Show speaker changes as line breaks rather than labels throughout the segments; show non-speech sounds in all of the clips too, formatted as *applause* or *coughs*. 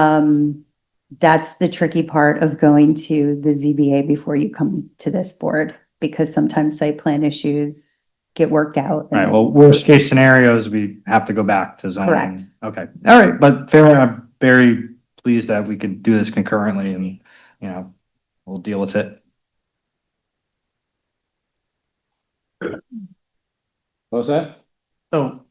Um, that's the tricky part of going to the ZBA before you come to this board, because sometimes site plan issues get worked out.
All right, well, worst case scenarios, we have to go back to zoning.
Correct.
Okay, all right, but fair, I'm very pleased that we could do this concurrently and, you know, we'll deal with it.
What's that?
So,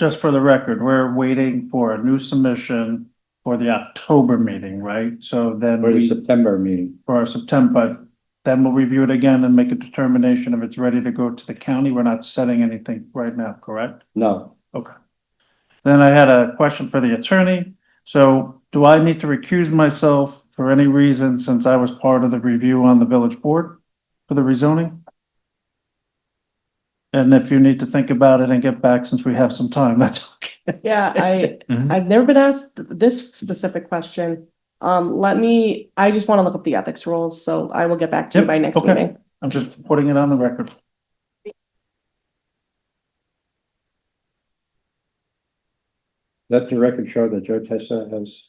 just for the record, we're waiting for a new submission for the October meeting, right? So then
For the
we,
September meeting.
for our September, but then we'll review it again and make a determination if it's ready to go to the county. We're not setting anything right now, correct?
No,
Then I had a question for the attorney. So do I need to recuse myself for any reason since I was part of the review on the village board for the rezoning? And if you need to think about it and get back since we have some time, that's okay.
Yeah,
*laughs*
I,
Mm-hmm.
Mhm.
I've never been asked this specific question. Um, let me, I just want to look up the ethics rules, so I will get back to you
Yep,
by next
okay.
meeting.
I'm just putting it on the record.
let the record show that Joe Testa
*coughs*
has.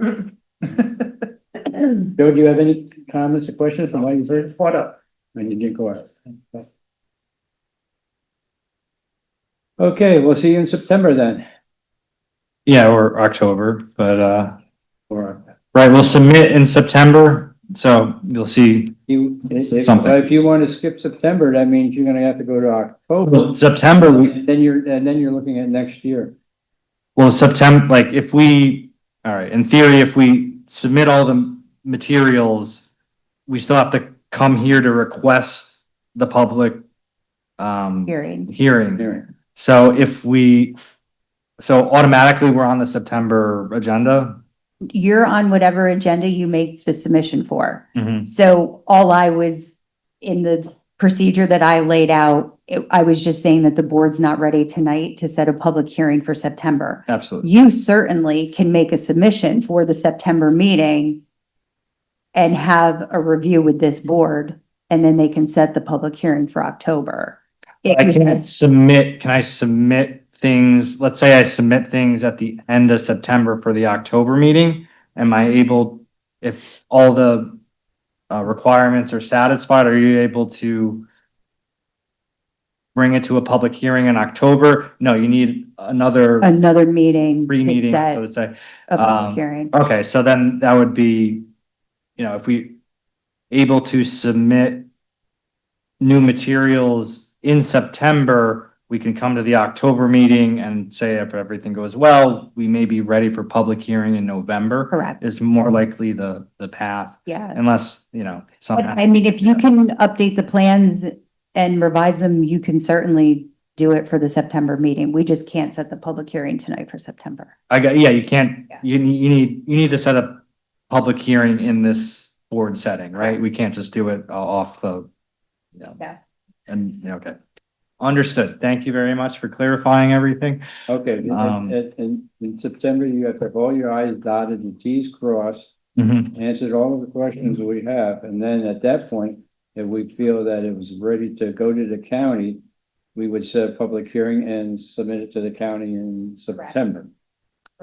Joe, do you have any comments or questions from what you heard? What up? And you didn't go out. Okay, we'll see you in September then,
Yeah, or October, but, uh,
or
right, we'll submit in September, so you'll see.
you, if
Something.
if you want to skip September, that means you're gonna have to go to October.
September, we-
And Then you're, and then you're looking at next year.
Well, September, like if we, all right, in theory, if we submit all the materials, we still have to come here to request the public um
Hearing,
hearing.
Anyway,
So if we, so automatically we're on the September agenda.
you're on whatever agenda you make the submission for.
Mhm.
So all I was, in the procedure that I laid out, it- I was just saying that the board's not ready tonight to set a public hearing for September.
Absolutely.
You certainly can make a submission for the September meeting and have a review with this board, and then they can set the public hearing for October. It
I
was-
can't submit, can I submit things, let's say I submit things at the end of September for the October meeting? Am I able, if all the uh, requirements are satisfied, are you able to bring it to a public hearing in October? No, you need another
Another meeting. to
pre-meeting,
set
so to say.
A
um,
public hearing.
Okay, so then that would be, you know, if we able to submit new materials in September, we can come to the October meeting and say if everything goes well, we may be ready for public hearing in November
Correct,
is more likely the, the path
yeah.
unless, you know,
But
something.
I mean, if you can update the plans and revise them, you can certainly do it for the September meeting. We just can't set the public hearing tonight for September.
I got, yeah, you can't,
Yeah.
you, need- you need, you need to set a public hearing in this board setting, right? We can't just do it uh, off the, you know.
Yeah.
And, yeah, okay. Understood. Thank you very much for clarifying everything.
Okay,
Um,
and, and in September, you have to have all your i's dotted and t's crossed.
Mhm.
answered all of the questions we have, and then at that point, if we feel that it was ready to go to the county, we would set a public hearing and submit it to the county in September.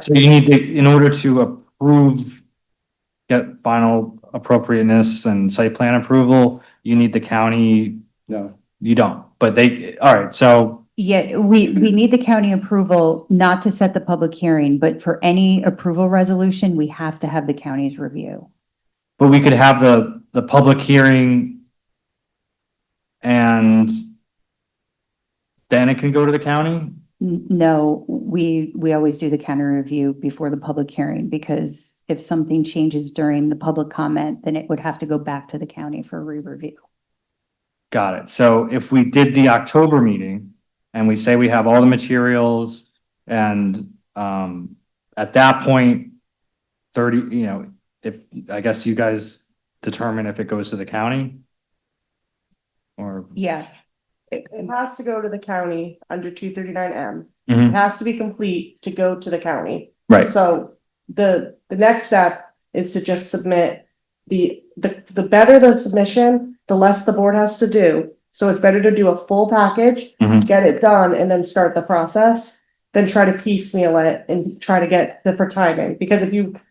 So you need to, in order to approve, get final appropriateness and site plan approval, you need the county,
No,
you don't, but they, all right, so,
Yeah, we, we need the county approval not to set the public hearing, but for any approval resolution, we have to have the county's review.
but we could have the, the public hearing and then it can go to the county?
N- No, we, we always do the county review before the public hearing because if something changes during the public comment, then it would have to go back to the county for re-review.
Got it. So if we did the October meeting and we say we have all the materials and um at that point thirty, you know, if, I guess you guys determine if it goes to the county? Or,
Yeah.
It it has to go to the county under two thirty-nine M. It
Mm-hmm.
Mhm.
has to be complete to go to the county.
right,
So the, the next step is to just submit the, the, the better the submission, the less the board has to do. So it's better to do a full package,
Mhm.
get it done and then start the process, than try to piecemeal it and try to get the for timing. Because if you